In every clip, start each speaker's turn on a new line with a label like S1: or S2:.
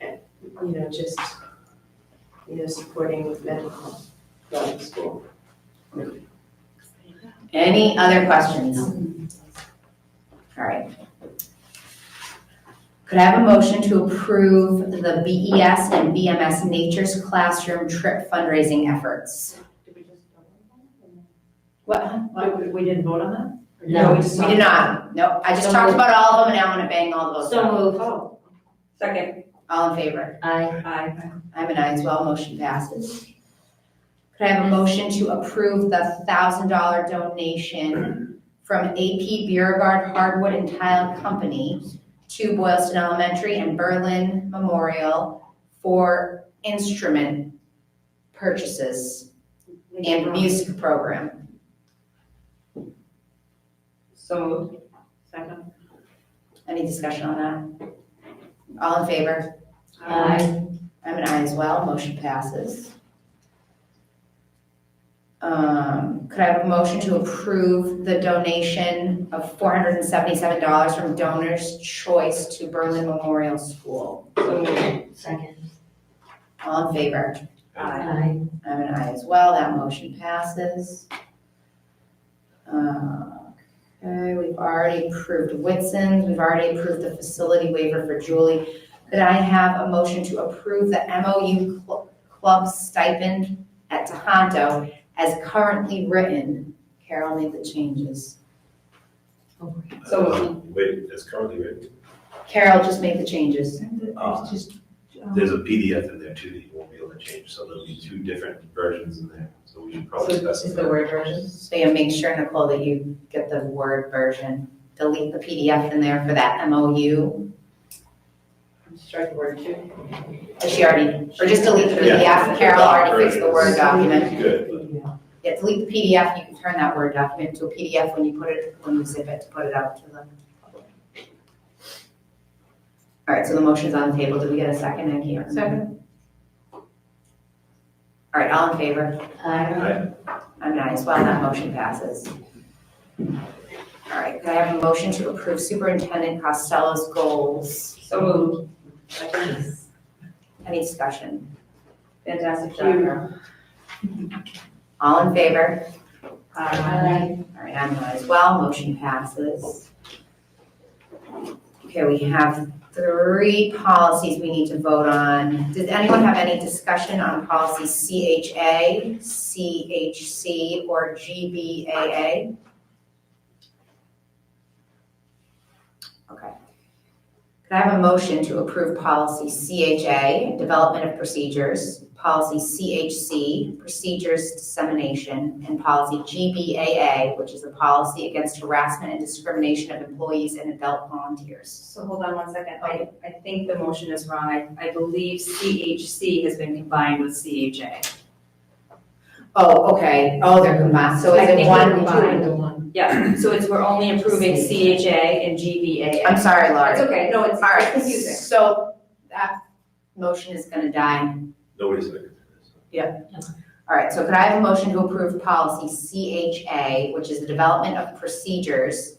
S1: and, you know, just, you know, supporting mental health throughout the school.
S2: Any other questions? All right. Could I have a motion to approve the BES and BMS Nature's Classroom Trip fundraising efforts?
S1: Did we just vote on
S2: What?
S1: that? Why, we didn't vote on that?
S3: No,
S1: we
S2: We did not. Nope, I just talked about all of them and I want to bang all of those.
S3: So moved.
S1: Oh,
S3: Second.
S2: All in favor?
S3: Aye.
S1: aye.
S2: I'm an aye as well, motion passes. Could I have a motion to approve the thousand dollar donation from AP Beauregard Hardwood and Tile Company to Boylston Elementary and Berlin Memorial for instrument purchases and music program?
S3: So moved.
S1: Second.
S2: Any discussion on that? All in favor? I'm an aye as well, motion passes. Um, could I have a motion to approve the donation of four hundred and seventy-seven dollars from Donors Choice to Berlin Memorial School?
S3: So moved. Second.
S2: All in favor?
S1: Aye.
S3: Aye.
S2: I'm an aye as well, that motion passes. Uh, Okay, we've already approved Whitson's, we've already approved the facility waiver for Julie. Could I have a motion to approve the MOU cl- club stipend at Tohoto as currently written? Carol made the changes.
S3: So-
S4: Um, Wait, it's currently written.
S2: Carol just made the changes.
S4: Um, There's a PDF in there too that you won't be able to change, so there'll be two different versions in there, so we should probably specify.
S1: word version?
S2: So you make sure, Nicole, that you get the Word version. Delete the PDF in there for that MOU.
S1: Strike the word two.
S2: Is she already Or just delete the
S4: Yeah.
S2: PDF, Carol already fixed the Word document.
S4: Good,
S2: Yeah, delete the PDF, you can turn that Word document to a PDF when you put it, when you zip it, to put it out to the public. All right, so the motion's on the table, did we get a second, I can't Second. All right, all in favor?
S3: Aye.
S2: I'm an aye as well, that motion passes. All right, could I have a motion to approve Superintendent Costello's goals?
S3: So moved.
S2: Any discussion?
S1: Fantastic
S2: job, All in favor?
S3: Aye.
S2: All right, I'm an aye as well, motion passes. Okay, we have three policies we need to vote on. Does anyone have any discussion on policy CHA, CHC, or GBAA? Okay. Could I have a motion to approve policy CHA, development of procedures, policy CHC, procedures dissemination, and policy GBAA, which is the policy against harassment and discrimination of employees and adult volunteers?
S3: So hold on one second. I, I think the motion is wrong. I, I believe CHC has been combined with CHA.
S2: Oh, okay, oh, they're combined, so
S3: I
S2: is it
S3: think
S2: one?
S3: they're combined.
S1: one.
S3: Yeah, so it's, we're only approving CHA and GBA.
S2: I'm sorry, Laura.
S3: It's okay, no, it's
S2: All right,
S3: confusing.
S2: so that motion is gonna die.
S4: nobody's seconded this.
S2: All right, so could I have a motion to approve policy CHA, which is the development of procedures,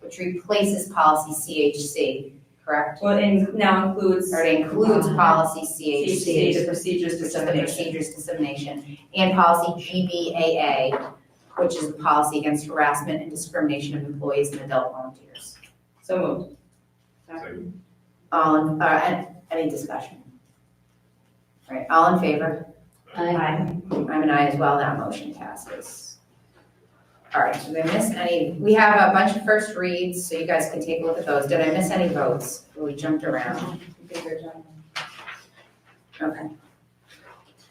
S2: which replaces policy CHC, correct?
S3: Well, and now includes
S2: Or it includes policy
S3: CHC, the
S2: CHC,
S3: procedures
S2: which is the
S3: dissemination.
S2: procedures dissemination, and policy GBAA, which is the policy against harassment and discrimination of employees and adult volunteers.
S3: So moved.
S4: Second.
S2: All, in- uh, an- any discussion? All right, all in favor?
S3: Aye.
S2: I'm an aye as well, that motion passes. All right, did I miss any, we have a bunch of first reads, so you guys can take a look at those. Did I miss any votes? We jumped around. Okay.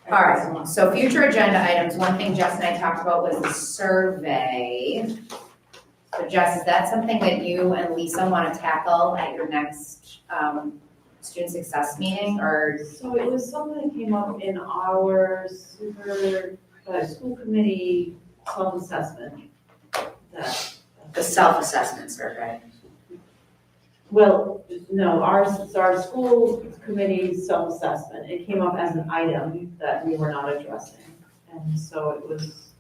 S2: All right, so future agenda items, one thing Jess and I talked about was the survey. So Jess, is that something that you and Lisa want to tackle at your next um, student success meeting, or?
S1: So it was something that came up in our super, uh, school committee self-assessment. that-
S2: self-assessment survey.
S1: Well, no, ours, it's our school committee self-assessment, it came up as an item that we were not addressing. And so it was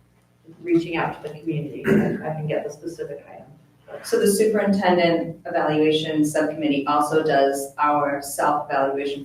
S1: reaching out to the community, if I can get the specific item.
S2: So the superintendent evaluation subcommittee also does our self-evaluation